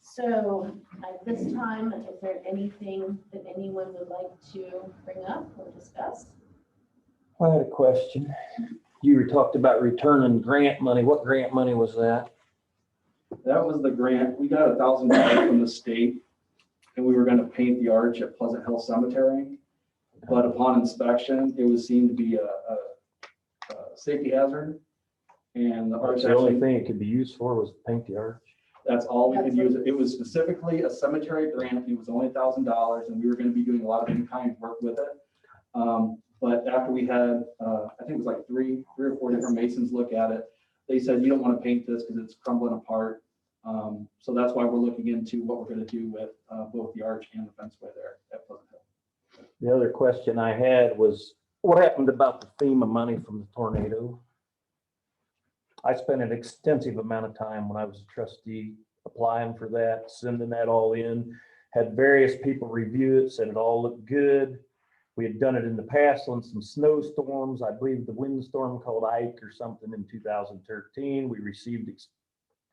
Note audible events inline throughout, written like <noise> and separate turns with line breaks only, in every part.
So at this time, is there anything that anyone would like to bring up or discuss?
I had a question. You were talked about returning grant money. What grant money was that?
That was the grant. We got a thousand dollars from the state and we were gonna paint the arch at Pleasant Hill Cemetery. But upon inspection, it was seen to be a, a, a safety hazard. And the arch
The only
actually,
thing it could be used for was paint the arch.
that's all we could
That's
use. it. It was specifically a cemetery grant. It was only a thousand dollars and we were gonna be doing a lot of in-kind work with it. Um, but after we had, uh, I think it was like three, three or four different masons look at it, they said, you don't want to paint this because it's crumbling apart. Um, so that's why we're looking into what we're going to do with, uh, both the arch and the fenceway there at Pleasant Hill.
The other question I had was, what happened about the FEMA money from the tornado? I spent an extensive amount of time when I was a trustee applying for that, sending that all in. Had various people review it, said it all looked good. We had done it in the past on some snowstorms. I believe the windstorm called Ike or something in two thousand thirteen. We received ex-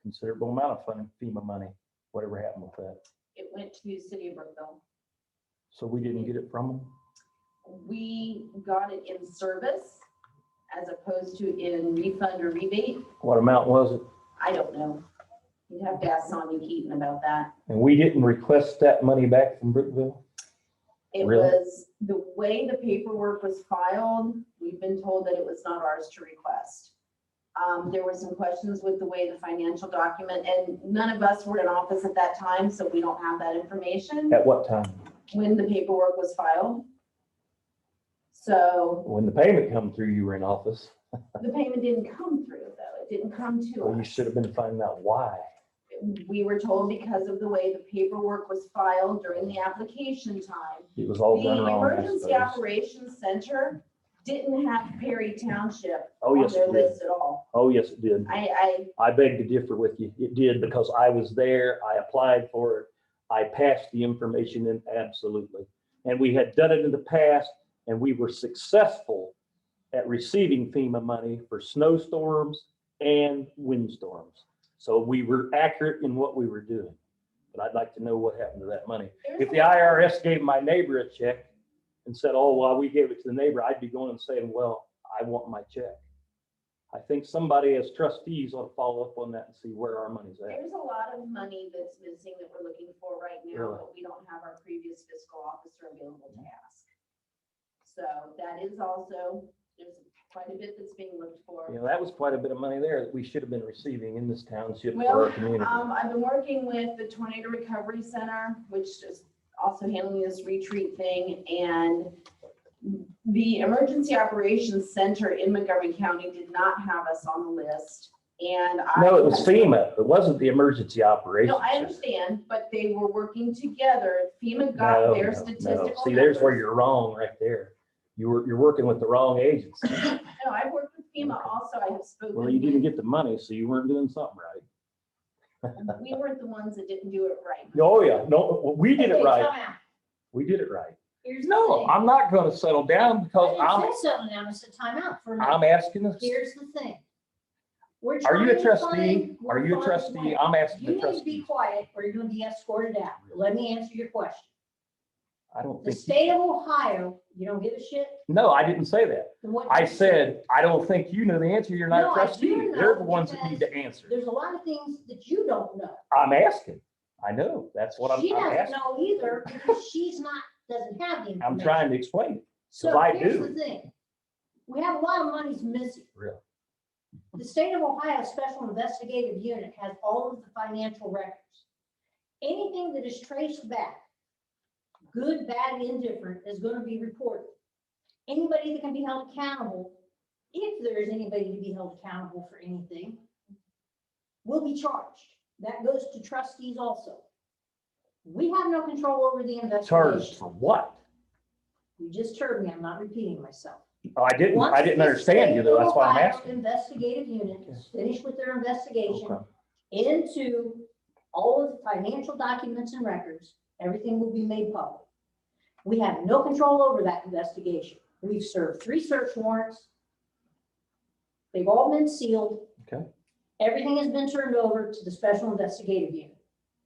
considerable amount of fun- FEMA money, whatever happened with that.
It went to City of Brookville.
So we didn't get it from them.
We got it in service as opposed to in refund or rebate.
What amount was it?
I don't know. You'd have to ask Sonia Keaton about that.
And we didn't request that money back from Brookville?
It
Really?
was, the way the paperwork was filed, we've been told that it was not ours to request. Um, there were some questions with the way the financial document, and none of us were in office at that time, so we don't have that information
At what time?
when the paperwork was filed. So
When the payment come through, you were in office.
the payment didn't come through though, it didn't come to
Well, you
us.
should have been finding out why.
We were told because of the way the paperwork was filed during the application time,
It was all
The
done wrong. I
Emergency
suppose.
Operations Center didn't have Perry Township
Oh,
on
yes,
their
it did.
list at all.
Oh, yes, it did.
I, I,
I beg to differ with you. It did because I was there. I applied for it. I passed the information in absolutely. And we had done it in the past and we were successful at receiving FEMA money for snowstorms and windstorms. So we were accurate in what we were doing. But I'd like to know what happened to that money.
there's
If
a-
the IRS gave my neighbor a check and said, oh, well, we gave it to the neighbor, I'd be going and saying, well, I want my check. I think somebody as trustees ought to follow up on that and see where our money's at.
There's a lot of money that's missing that we're looking for right now,
Really?
but we don't have our previous fiscal officer available to ask. So that is also, there's quite a bit that's being looked for.
You know, that was quite a bit of money there that we should have been receiving in this township
Well,
for our community.
Um, I've been working with the Tornado Recovery Center, which is also handling this retreat thing, and the Emergency Operations Center in Montgomery County did not have us on the list, and I.
No, it was FEMA. It wasn't the emergency operations.
No, I
Center.
understand, but they were working together. FEMA
No,
got their
no, no.
statistical.
See, there's where
numbers.
you're wrong right there. You were, you're working with the wrong agency.
No, I've worked with FEMA also. I have spoken.
Well, you
with-
didn't get the money, so you weren't doing something right.
We weren't the ones that didn't do it right.
Oh, yeah. No, we did it
Okay,
right.
time out.
We did it right.
Here's the
No,
thing.
I'm not gonna settle down because
You
I'm,
said something, now, I said time out for a minute.
I'm asking, this-
Here's the thing. We're
are you
trying
a
to
trustee?
find-
Are
we're
you a
finding
trustee?
ways.
I'm asking
You
the
need to be
trustee.
quiet or you're gonna be escorted out. Let me answer your
<laughs>
question.
I don't
The
think,
state of Ohio, you don't give a shit?
no, I didn't say that.
Then what do
I
you say?
said, I don't think you know the answer. You're not
No,
a
I
trustee.
do know
They're the ones that
because
need to answer.
There's a lot of things that you don't know.
I'm asking. I know. That's what I'm,
She
I'm
doesn't
asking.
know either because she's not, doesn't have the information.
I'm trying to explain it,
So
'cause I
here's
do.
the thing. We have a lot of monies missing.
really.
The state of Ohio Special Investigative Unit has all of the financial records. Anything that is traced back, good, bad, indifferent, is going to be reported. Anybody that can be held accountable, if there is anybody to be held accountable for anything, will be charged. That goes to trustees also. We have no control over the
Charged
investigation.
for what?
You just heard me, I'm not repeating myself.
Oh, I didn't, I
Once
didn't
the
understand you though.
state
That's why I'm
Ohio
asking.
Investigative unit is finished with their investigation
Okay.
into all of the financial documents and records, everything will be made public. We have no control over that investigation. We've served three search warrants. They've all been sealed.
Okay.
Everything has been turned over to the Special Investigative Unit.